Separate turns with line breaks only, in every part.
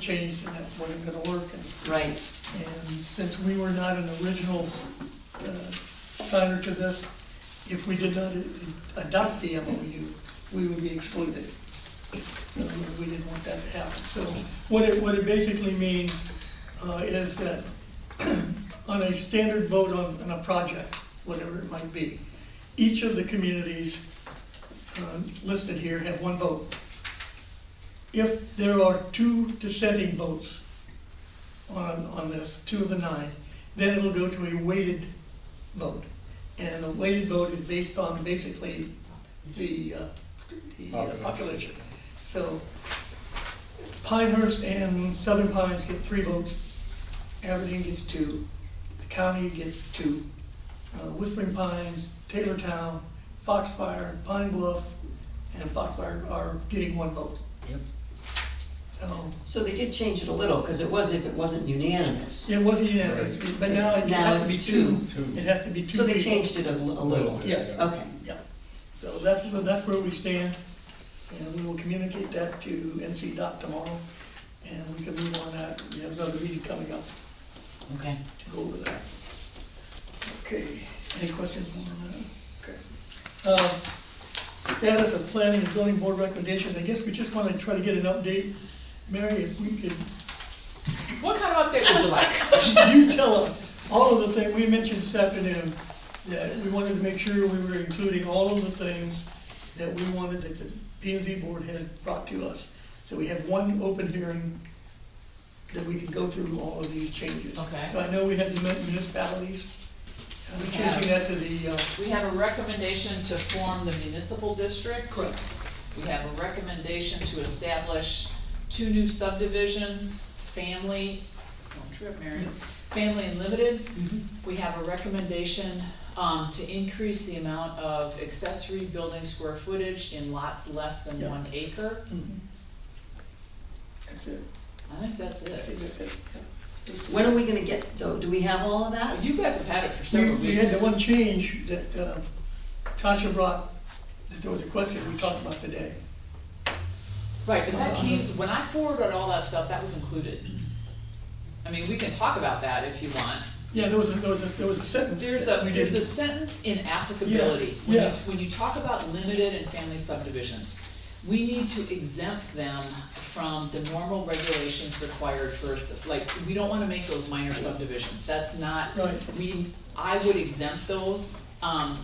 changed and that wasn't gonna work. And
right,
and since we were not an original uh, signer to this, if we did not adopt the MOU, we would be excluded. So We didn't want that to happen. So what it, what it basically means uh, is that on a standard vote on, on a project, whatever it might be, each of the communities uh, listed here have one vote. If there are two dissenting votes, on, on this, two of the nine, then it'll go to a weighted vote. And the weighted vote is based on basically the, uh, the uh, population. So Pinehurst and Southern Pines get three votes, Aberdeen gets two, the county gets two, uh, Whispering Pines, Taylortown, Foxfire, Pine Bluff, and Foxfire are getting one vote.
Yep.
So
so they did change it a little, because it was if it wasn't unanimous.
It wasn't unanimous, but now it
Now
has to be
it's
two.
two. Two.
It has to be two.
So they
people.
changed it a l- a little.
Yeah.
Okay,
Yeah, so that's, so that's where we stand, and we will communicate that to NC Dot tomorrow, and we can move on that, we have another meeting coming up
okay.
to go over that. Okay, any questions on that? Okay. Um, Status of planning and zoning board recommendations, I guess we just wanna try to get an update. Mary, if we could
What kind of update would you like?
you tell us, all of the things, we mentioned this afternoon, that we wanted to make sure we were including all of the things that we wanted that the P and Z board had brought to us. So we have one open hearing that we can go through all of these changes.
Okay.
So I know we had the municipalities, uh,
We have.
changing that to the, uh,
We have a recommendation to form the municipal district.
correct,
We have a recommendation to establish two new subdivisions, family, don't trip, Mary, family and limited.
Mm-hmm.
We have a recommendation, um, to increase the amount of accessory building square footage in lots less than
Yeah.
one acre.
Mm-hmm. that's it,
I think that's
I think
it.
that's it, yeah.
When are we gonna get, though, do we have all of that?
You guys have had it for
We,
several
we had
weeks.
the one change that uh, Tasha brought, that there was a question we talked about today.
Right, but
Uh-huh.
that came, when I forwarded all that stuff, that was included. I mean, we can talk about that if you want.
Yeah, there was, a- there was, a- there was a sentence.
There's
that
a,
we
there's a
did.
sentence in applicability, when you,
yeah.
when you talk about limited and family subdivisions, we need to exempt them from the normal regulations required for, a sub- like, we don't wanna make those minor subdivisions, that's not,
Right.
we, I would exempt those, um,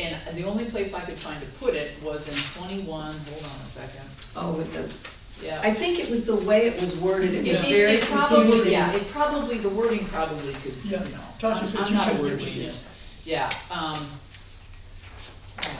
and the only place I could find to put it was in twenty-one, hold on a second,
Oh, with the,
yeah.
I think it was the way it was worded, it
It,
was
it-
very
it probably,
confusing.
yeah, it probably, the wording probably could, you
Yeah,
know,
Tasha
I'm,
said
I'm
she
not a
couldn't
word
do it, yeah.
genius, yeah, um.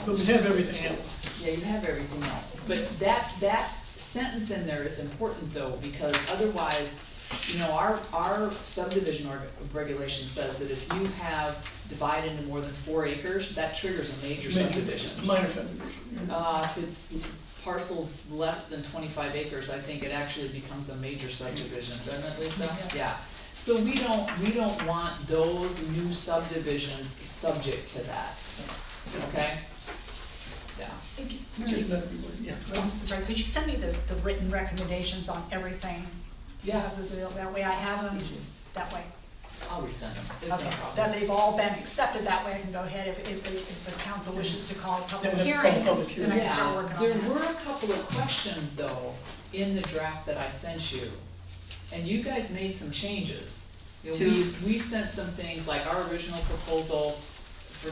But we have everything else.
Yeah, you have everything else, but that, that sentence in there is important though, because otherwise, you know, our, our subdivision org- regulation says that if you have divided into more than four acres, that triggers a major
Major-
subdivision.
Minor subdivision. yeah.
Uh, if it's parcels less than twenty-five acres, I think it actually becomes a major subdivision, doesn't it, Lisa? Yeah, so we don't, we don't want those new subdivisions subject to that, okay? Yeah,
Which is
Really,
not everywhere, yeah.
well, Mrs. Wright, could you send me the, the written recommendations on everything?
yeah,
That was available, that way I have them, that way.
I'll resend them, it's no
Okay, that
problem.
they've all been accepted, that way I can go ahead if, if, the- if the council wishes to call a public
Then we call
hearing,
public hearing.
then I can start
Yeah,
working on
there
that.
were a couple of questions though, in the draft that I sent you, and you guys made some changes. You know,
To-
we, we sent some things, like our original proposal, for,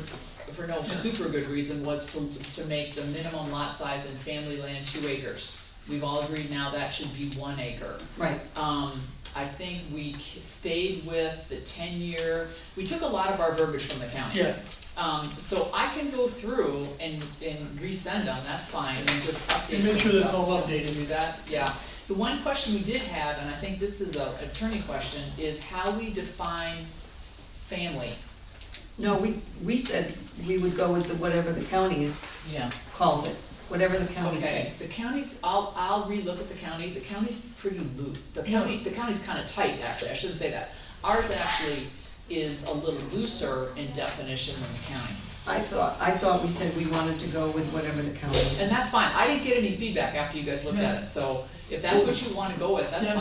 for no super good reason, was to, to make the minimum lot size in family land two acres. We've all agreed now that should be one acre.
Right,
Um, I think we k- stayed with the ten-year, we took a lot of our verbiage from the county.
Yeah,
Um, so I can go through and, and resend them, that's fine, and just update
And make
some
sure they're
stuff.
all updated.
Do that, yeah. The one question we did have, and I think this is a attorney question, is how we define family.
no, we, we said we would go with the, whatever the county is,
Yeah.
calls it, whatever the county
Okay,
says.
the county's, I'll, I'll relook at the county, the county's pretty loose, the county, the county's kinda tight, actually, I shouldn't say that. Ours actually is a little looser in definition than the county.
I thought, I thought we said we wanted to go with whatever the county is.
And that's fine, I didn't get any feedback after you guys looked at it, so if that's what you wanna go with, that's
Yeah.
fine.